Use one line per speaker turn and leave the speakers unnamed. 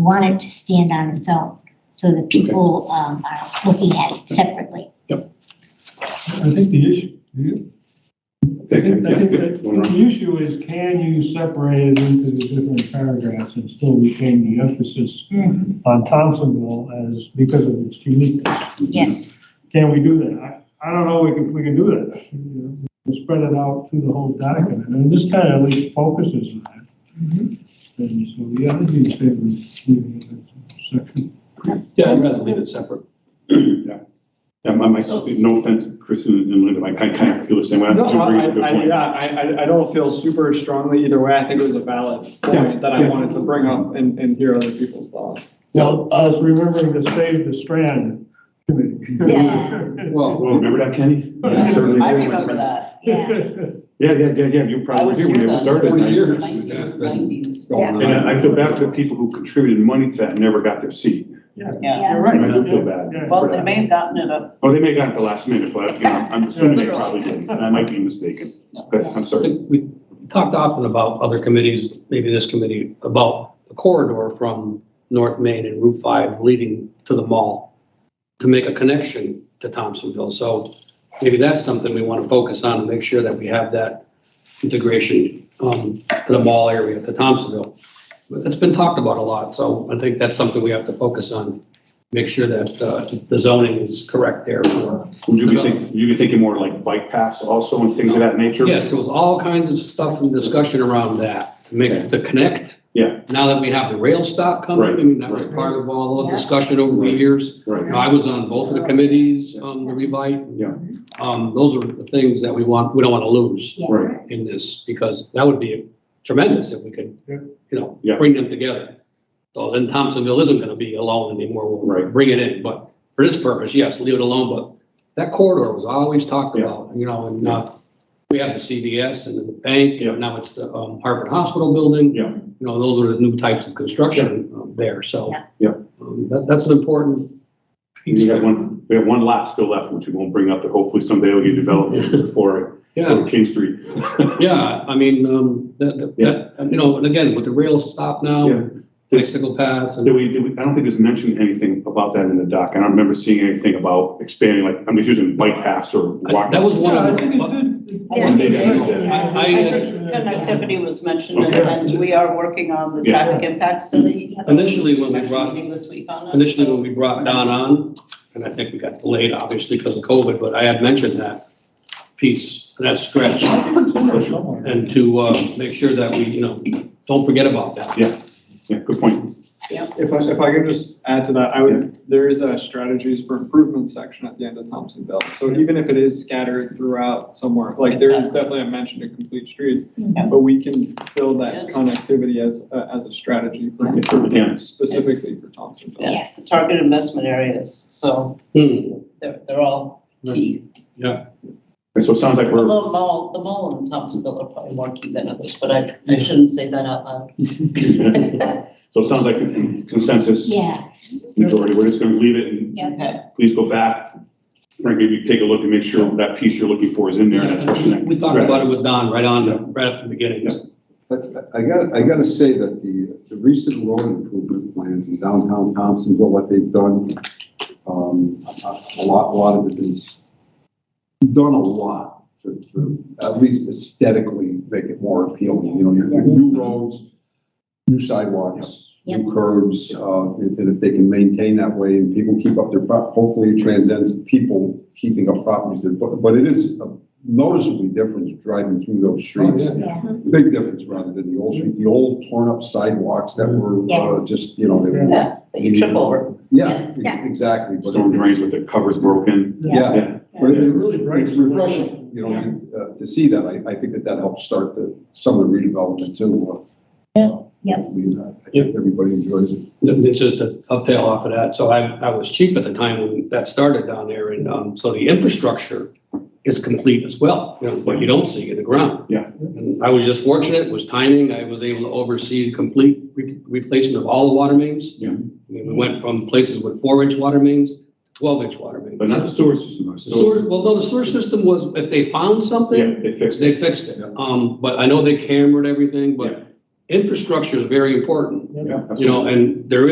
want it to stand on its own, so that people um, are looking at it separately.
I think the issue, the- I think, I think that the issue is can you separate it into the different paragraphs and still retain the emphasis
Mm-hmm.
on Thompsonville as, because of its uniqueness?
Yes,
Can we do that? I, I don't know if we can do that. you know, we'll Spread it out through the whole document, and this kind of at least focuses on it. And so, yeah, I'd be in favor of leaving it as a section.
Yeah, I'd rather leave it separate.
Yeah, Yeah, my, my, no offense, Chris and and Linda, but I kind of, kind of feel the same way. I
No,
think you bring
I,
up a good
I,
point.
yeah, I, I- I don't feel super strongly either way. I think it was a valid
Yeah,
point that I
yeah.
wanted to bring up and, and hear other people's thoughts. So,
So, I was remembering to save the strand committee.
Yeah.
Well, remember that, Kenny?
Yeah.
You certainly
I
did.
remember that.
yeah.
Yeah, yeah, yeah, yeah, you
I
probably
was
did
here
when it
then,
started.
twenty
I-
years.
That's been
Nineties.
going on.
And I I feel bad for the people who contributed money to that and never got their seat.
Yeah,
You're right.
I do feel bad.
Yeah.
well, they may have gotten it up,
Oh, they may have gotten it the last minute, but you know, I'm assuming they probably did. And I might be mistaken, but I'm
I
sorry.
think we talked often about other committees, maybe this committee, about the corridor from North Main and Route 5 leading to the mall to make a connection to Thompsonville. So maybe that's something we want to focus on and make sure that we have that integration um, to the mall area, to Thompsonville. But it's been talked about a lot, so I think that's something we have to focus on. Make sure that uh, the zoning is correct there for
Would you be thinking, you be thinking more like bike paths also and things of that nature?
Yes, there was all kinds of stuff and discussion around that, to make, to connect.
Yeah.
Now that we have the rail stop coming, I mean, that was
Right,
part of all the
Yeah.
discussion over the
Right.
years.
Right.
I was on both of the committees, on the revite.
Yeah.
Um, those are the things that we want, we don't want to lose
Right.
in this, because that would be tremendous if we could,
Yeah.
you know,
Yeah.
bring them together. So then Thompsonville isn't gonna be alone anymore, we'll
Right.
bring it in, but for this purpose, yes, leave it alone, but that corridor was always talked
Yeah.
about, you know, and, uh, we have the CVS and then the bank,
Yeah.
and now it's the um, Harvard Hospital Building.
Yeah.
You know, those are the new types of construction um, there, so.
Yeah.
Yeah.
um, That, that's an important piece.
We have one, we have one lot still left, which we won't bring up, that hopefully someday will get developed for,
Yeah,
for King Street.
yeah, I mean, um, that, that- that, and, you know, and again, with the rail stop
Yeah.
now, bicycle paths
Did
and,
we, did we, I don't think there's mentioned anything about that in the doc. I don't remember seeing anything about expanding, like, I'm just using bike paths or
I-
walk.
that was one
Yeah, I
of
think
the,
it did.
Yeah.
Maybe I missed
I-
it.
I-
I
Yeah.
think connectivity was mentioned, and-
Okay.
and we are working on the
Yeah.
traffic impact study.
Initially, when we
Actually,
brought-
Meeting this week on it.
initially when we brought Don on, and I think we got delayed obviously because of COVID, but I had mentioned that piece, that stretch. and to uh, make sure that we, you know, don't forget about that.
Yeah, good point.
if I, if I could just add to that, I would, there is a strategies for improvement section at the end of Thompsonville. So even if it is scattered throughout somewhere, like there is
Exactly.
definitely a mention to complete streets,
Yeah.
but we can build that
Yeah.
connectivity as, a- as a strategy for
It certainly can.
specifically for Thompsonville.
Yes.
The target investment areas, so
Hmm,
they're, they're all key.
And so it sounds like we're,
Although mall, the mall in Thompsonville are probably more key than others, but I, I shouldn't say that out loud.
so it sounds like consensus,
Yeah,
majority, we're just gonna leave it and
yeah.
Okay,
please go back. Frank, maybe take a look and make sure that piece you're looking for is in there, and that's what's next.
We talked about it with Don right on, right at the beginning.
But I gotta, I gotta say that the, the recent road improvement plans in downtown Thompsonville, what they've done, um, a a lot, a lot of it is done a lot to, to at least aesthetically make it more appealing, you know, you have new roads, new sidewalks,
Yep.
new curbs, uh, and and if they can maintain that way and people keep up their, prop- hopefully it transcends people keeping up properties, but, but it is a noticeably different driving through those streets.
Yeah.
Big difference rather than the old streets, the old torn up sidewalks that were uh, just, you know, they were,
yeah, that you trip over.
yeah,
Yeah.
ex- exactly. but
Storm
it's-
drains with the covers broken.
Yeah,
Yeah,
but
Yeah.
it's,
Really bright.
it's refreshing, you know, to, uh, to see that. I, I think that that helps start the, some of the redevelopment too. uh, Yeah.
Yeah.
uh, I think everybody enjoys it.
It's just a uptail off of that. So I, I was chief at the time when that started down there. And um, so the infrastructure is complete as well, you know, but you don't see in the ground.
Yeah.
And I was just fortunate, it was timing. I was able to oversee complete re- replacement of all the water mains.
Yeah.
I mean, we went from places with four inch water mains, to twelve inch water mains.
but not the sewer system.
The sewer, well, no, the sewer system was, if they found
Yeah,
something,
they fixed it.
they fixed it. Um, but I know they cambered everything,
Yeah.
but infrastructure is very important,
Yeah,
you know, and there